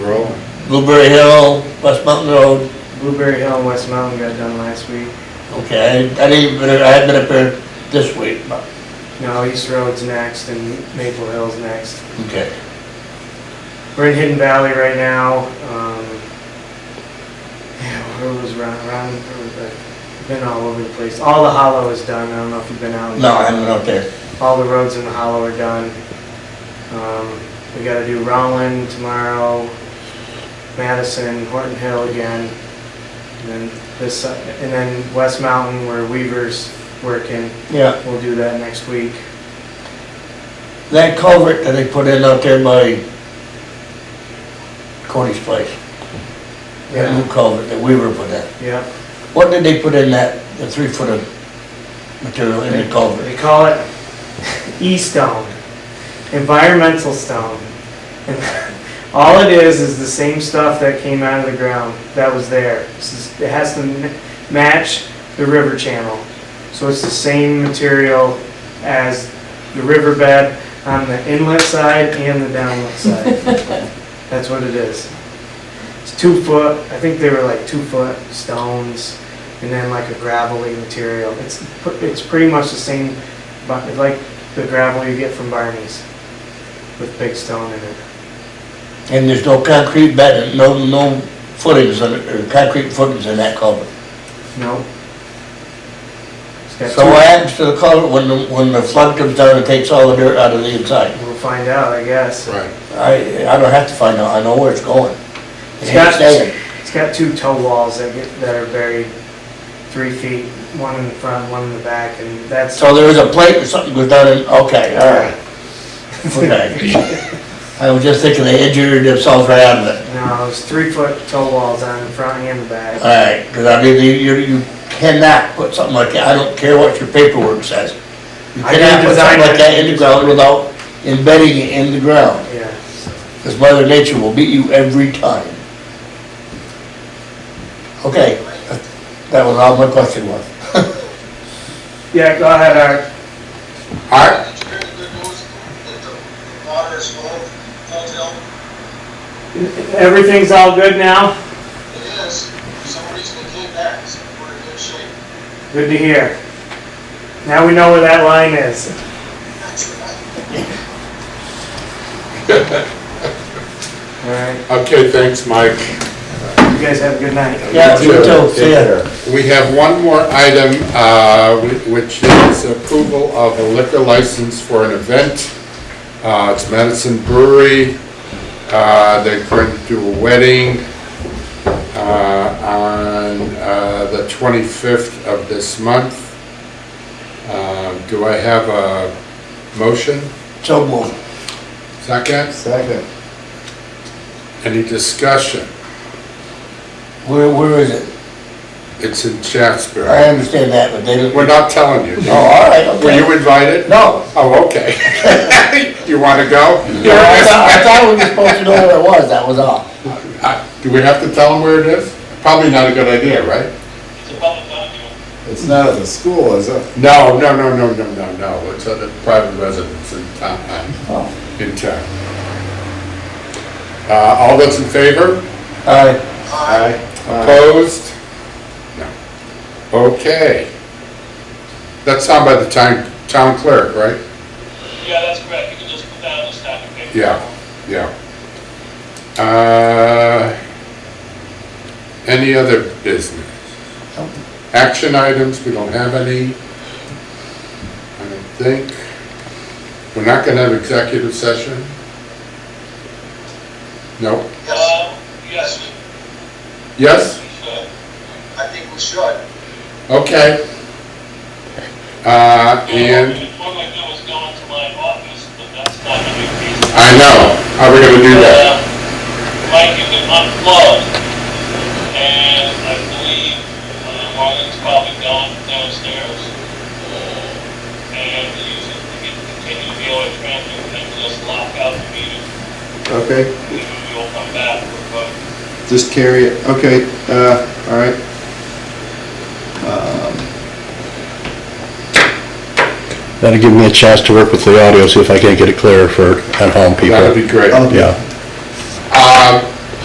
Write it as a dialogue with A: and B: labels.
A: Roll.
B: Blueberry Hill, West Mountain Road.
C: Blueberry Hill and West Mountain got done last week.
B: Okay, I I didn't, even- I had been up there this week, but,
C: No, East Road's next and Maple Hill's next.
B: okay.
C: We're in Hidden Valley right now. Um, yeah, where was Ron? Ron where was I? been all over the place. All the hollow is done. I don't know if you've been out.
B: No, I haven't been out there.
C: All the roads in the hollow are done. Um, we got to do Rollin tomorrow, Madison, Horton Hill again, and then this, and then West Mountain where Weaver's working.
B: Yeah,
C: We'll do that next week.
B: that culvert that they put in out there by Cody's place. That new culvert that we were put in.
C: Yep.
B: What did they put in that, the three foot of material in the culvert?
C: They call it E-stone, environmental stone. And All it is, is the same stuff that came out of the ground that was there. This is- It has to m- match the river channel. So it's the same material as the riverbed on the inlet side and the downlet side. That's what it is. It's two foot, I think they were like two foot stones and then like a gravelly material. It's, pr- it's pretty much the same, but it's like the gravel you get from Barney's with big stone in it.
B: And there's no concrete bed, no, no footings, in it, or concrete footings in that culvert.
C: No. It's got
B: So
C: two-
B: what happens to the culvert when, the- when the flood comes down and takes all the dirt out of the inside?
C: We'll find out, I guess.
A: Right.
B: I, I don't have to find out, I know where it's going. It
C: It's got-
B: ain't staying.
C: It's got two toe walls that get, that are buried three feet, one in the front, one in the back, and that's.
B: So there is a plate or something goes down and, okay, all right, okay. I was just thinking they injured themselves right out of it.
C: No, it's three foot toe walls on the front and the
B: All
C: back.
B: right, because I mean, you- you, you cannot put something like that, I don't care what your paperwork says. You
C: I didn't
B: cannot put
C: design
B: something like
C: it.
B: that in the ground without embedding it in the ground.
C: Yeah.
B: Because Mother Nature will beat you every time. Okay, that was all my question was.
C: Yeah, go ahead, Art.
B: Art?
D: It's very good news that the water is full, full tilt.
C: Everything's all good now?
D: It is, for some reason it came back, so we're in good shape.
C: Good to hear. Now we know where that line is. All right,
A: Okay, thanks, Mike.
C: you guys have a good night.
B: Yeah, you
A: Sure.
B: too, see ya.
A: We have one more item, uh, which is approval of a liquor license for an event. Uh, It's Madison Brewery. Uh, They're going to do a wedding uh, on uh, the 25th of this month. Uh, Do I have a motion?
B: So moved.
A: Second?
E: Second.
A: Any discussion?
B: Where, where is it?
A: It's in Chatsworth.
B: I understand that, but they didn't.
A: We're not telling you.
B: Oh, all right,
A: Were
B: okay.
A: you invited?
B: No.
A: Oh, okay. You want to go?
B: No, I thought, I thought we were supposed to know where it was, that was all.
A: Uh, Do we have to tell them where it is? Probably not a good idea, right?
D: It's a public document.
E: It's not at the school, is it?
A: No, no, no, no, no, no, no. It's at a private residence in town, uh,
B: Oh.
A: in town. Uh, All those in favor?
B: All right,
E: Aye.
A: Opposed? No. Okay. That's signed by the town, town clerk, right?
D: Yeah, that's correct, you can just put that on the stack of paper.
A: Yeah, yeah. Uh, Any other business?
B: Nope.
A: Action items, we don't have any. I don't think. We're not gonna have executive session? No?
D: Um, yes, we
A: Yes?
D: should. I think we should.
A: Okay. Uh, and,
D: What I do is go into my office, but that's not a big piece.
A: I know, how are we gonna do that?
D: Mike, Uh, you can unplug, and I believe uh, Marlon's probably gone downstairs. uh, And use it to get, continue the oil transfer, and then just lock out the meeting,
E: Okay,
D: and we'll come back, but
E: just carry it, okay, uh, all right. Um,
F: That'll give me a chance to work with the audio, see if I can't get it clear for at-home
A: That'd
F: people.
A: be great.
E: Okay.
F: Yeah.